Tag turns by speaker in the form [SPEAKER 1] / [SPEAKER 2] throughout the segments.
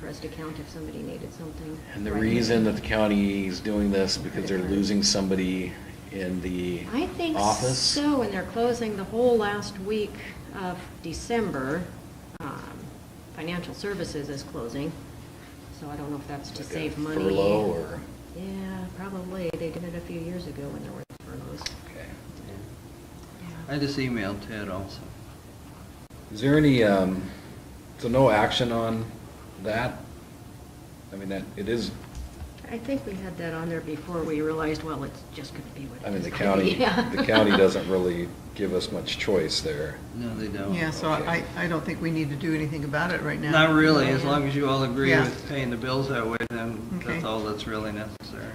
[SPEAKER 1] Crest account if somebody needed something.
[SPEAKER 2] And the
[SPEAKER 1] Right.
[SPEAKER 2] reason that the county is doing this, because they're losing somebody in the
[SPEAKER 1] I think
[SPEAKER 2] office?
[SPEAKER 1] so, and they're closing the whole last week of December. Um, Financial Services is closing, so I don't know if that's to
[SPEAKER 2] Like a
[SPEAKER 1] save money.
[SPEAKER 2] Furlough or?
[SPEAKER 1] Yeah, probably. They did it a few years ago when there were furloughs.
[SPEAKER 2] Okay.
[SPEAKER 1] Yeah.
[SPEAKER 3] I just emailed Ted also.
[SPEAKER 2] Is there any, um, so no action on that? I mean, that, it is,
[SPEAKER 1] I think we had that on there before we realized, well, it's just going to be what it is.
[SPEAKER 2] I mean, the
[SPEAKER 1] gonna
[SPEAKER 2] county,
[SPEAKER 1] be. Yeah.
[SPEAKER 2] the county doesn't really give us much choice there.
[SPEAKER 3] No, they don't.
[SPEAKER 4] Yeah, so I, I don't think we need to do anything about it right now.
[SPEAKER 3] Not really, as long as you all agree
[SPEAKER 4] Yeah.
[SPEAKER 3] with paying the bills that way, then
[SPEAKER 4] Okay.
[SPEAKER 3] that's all that's really necessary.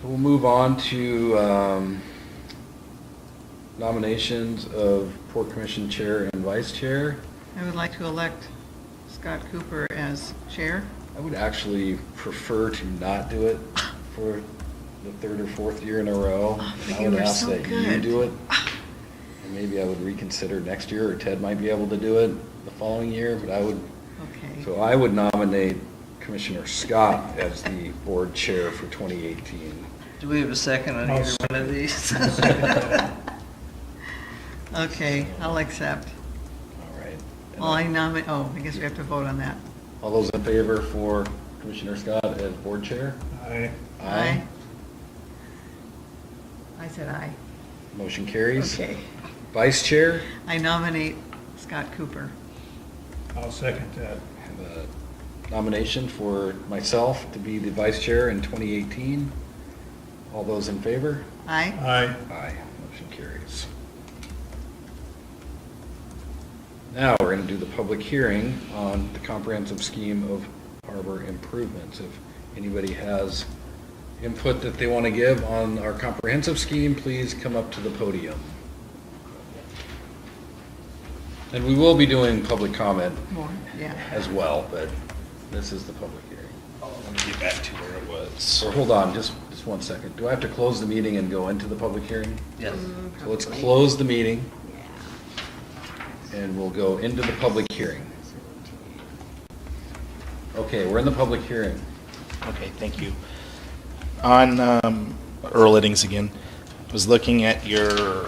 [SPEAKER 2] So we'll move on to um, nominations of Port Commission Chair and Vice Chair.
[SPEAKER 4] I would like to elect Scott Cooper as chair.
[SPEAKER 2] I would actually prefer to not do it for the third or fourth year in a row.
[SPEAKER 4] Oh, but
[SPEAKER 2] I
[SPEAKER 4] you
[SPEAKER 2] would
[SPEAKER 4] were
[SPEAKER 2] ask
[SPEAKER 4] so
[SPEAKER 2] that you
[SPEAKER 4] good.
[SPEAKER 2] do it. And maybe I would reconsider next year, or Ted might be able to do it the following year, but I would, so
[SPEAKER 4] Okay.
[SPEAKER 2] I would nominate Commissioner Scott as the board chair for 2018.
[SPEAKER 3] Do we have a second on
[SPEAKER 5] I'll
[SPEAKER 3] either one of these?
[SPEAKER 4] Okay, I'll accept.
[SPEAKER 2] All right. And
[SPEAKER 4] Well, I nominate, oh, I guess we have to vote on that.
[SPEAKER 2] All those in favor for Commissioner Scott as board chair?
[SPEAKER 5] Aye.
[SPEAKER 4] I said aye.
[SPEAKER 2] Motion carries.
[SPEAKER 4] Okay.
[SPEAKER 2] Vice chair?
[SPEAKER 4] I nominate Scott Cooper.
[SPEAKER 5] I'll second that.
[SPEAKER 2] have a nomination for myself to be the vice chair in 2018. All those in favor?
[SPEAKER 4] Aye?
[SPEAKER 5] Aye.
[SPEAKER 2] Aye. Motion carries. Now, we're going to do the public hearing on the comprehensive scheme of harbor improvements. If anybody has input that they want to give on our comprehensive scheme, please come up to the podium. And we will be doing public comment
[SPEAKER 4] More, yeah.
[SPEAKER 2] as well, but this is the public hearing.
[SPEAKER 6] Let me get back to where it was.
[SPEAKER 2] So hold on, just, just one second. Do I have to close the meeting and go into the public hearing?
[SPEAKER 3] Yes.
[SPEAKER 1] Mm,
[SPEAKER 2] So let's
[SPEAKER 1] probably.
[SPEAKER 2] close the meeting
[SPEAKER 1] Yeah.
[SPEAKER 2] and we'll go into the public hearing. Okay, we're in the public hearing.
[SPEAKER 6] Okay, thank you. On um, Earl Eddings again, I was looking at your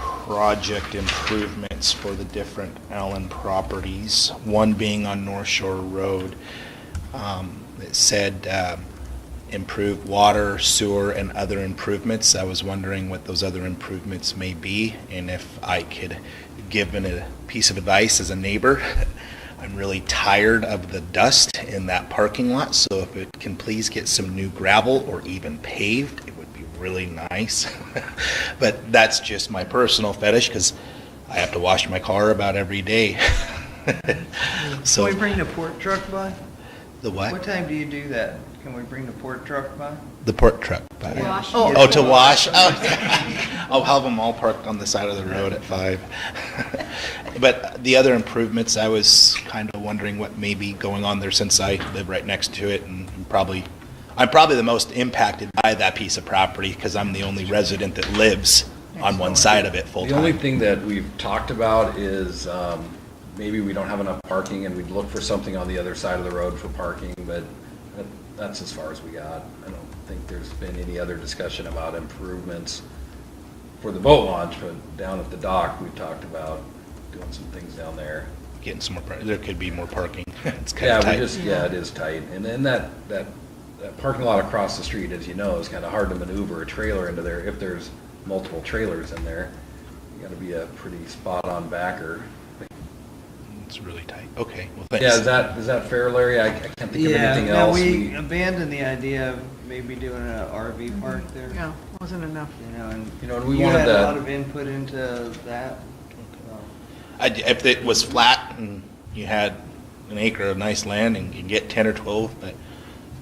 [SPEAKER 6] project improvements for the different Allen properties, one being on North Shore Road. Um, It said um, improve water, sewer, and other improvements. I was wondering what those other improvements may be, and if I could give it a piece of advice as a neighbor. I'm really tired of the dust in that parking lot, so if it can please get some new gravel or even paved, it would be really nice. But that's just my personal fetish, because I have to wash my car about every day.
[SPEAKER 3] Can
[SPEAKER 6] So,
[SPEAKER 3] we bring the port truck by?
[SPEAKER 6] the
[SPEAKER 3] What
[SPEAKER 6] what?
[SPEAKER 3] time do you do that? Can we bring the port truck by?
[SPEAKER 6] The port truck.
[SPEAKER 1] Wash.
[SPEAKER 3] Oh,
[SPEAKER 6] Oh, to wash? Oh, I'll have them all parked on the side of the road at five. But the other improvements, I was kind of wondering what may be going on there since I live right next to it and I'm probably, I'm probably the most impacted by that piece of property because I'm the only resident that lives on one side of it full
[SPEAKER 2] The only
[SPEAKER 6] time.
[SPEAKER 2] thing that we've talked about is um, maybe we don't have enough parking and we'd look for something on the other side of the road for parking, but that- that's as far as we got. I don't think there's been any other discussion about improvements for the boat launch, but down at the dock, we've talked about doing some things down there.
[SPEAKER 6] Getting some more, par- there could be more parking. It's kind of
[SPEAKER 2] Yeah, we
[SPEAKER 6] tight.
[SPEAKER 2] just, yeah, it is tight. And then that, that, that parking lot across the street, as you know, is kind of hard to maneuver a trailer into there if there's multiple trailers in there. You gotta be a pretty spot-on backer.
[SPEAKER 6] It's really tight. Okay, well, thanks.
[SPEAKER 2] Yeah, is that, is that fair, Larry? I I can't think of anything
[SPEAKER 3] Yeah, no,
[SPEAKER 2] else.
[SPEAKER 3] we
[SPEAKER 2] We-
[SPEAKER 3] abandoned the idea of maybe doing an RV park there.
[SPEAKER 4] Yeah, wasn't enough.
[SPEAKER 3] You know, and.
[SPEAKER 2] You know, and we wanted
[SPEAKER 3] You had a
[SPEAKER 2] that-
[SPEAKER 3] lot of input into that. so.
[SPEAKER 6] I- If it was flat and you had an acre of nice land and you could get ten or twelve, but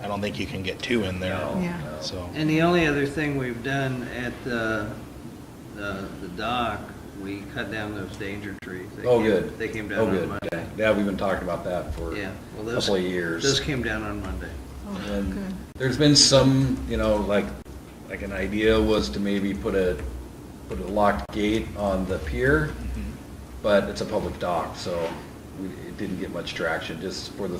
[SPEAKER 6] I don't think you can get two in there,
[SPEAKER 2] No,
[SPEAKER 4] Yeah.
[SPEAKER 2] no.
[SPEAKER 6] so.
[SPEAKER 3] And the only other thing we've done at the, the the dock, we cut down those danger trees. They
[SPEAKER 2] Oh,
[SPEAKER 3] came-
[SPEAKER 2] good.
[SPEAKER 3] They came
[SPEAKER 2] Oh,
[SPEAKER 3] down
[SPEAKER 2] good.
[SPEAKER 3] on Monday.
[SPEAKER 2] Yeah, we've been talking about that for
[SPEAKER 3] Yeah.
[SPEAKER 2] a
[SPEAKER 3] well, those-
[SPEAKER 2] couple of years.
[SPEAKER 3] Those came down on Monday.
[SPEAKER 4] Oh,
[SPEAKER 2] And
[SPEAKER 4] good.
[SPEAKER 2] There's been some, you know, like, like an idea was to maybe put a, put a locked gate on the pier, but it's a public dock, so we- it didn't get much traction, just for the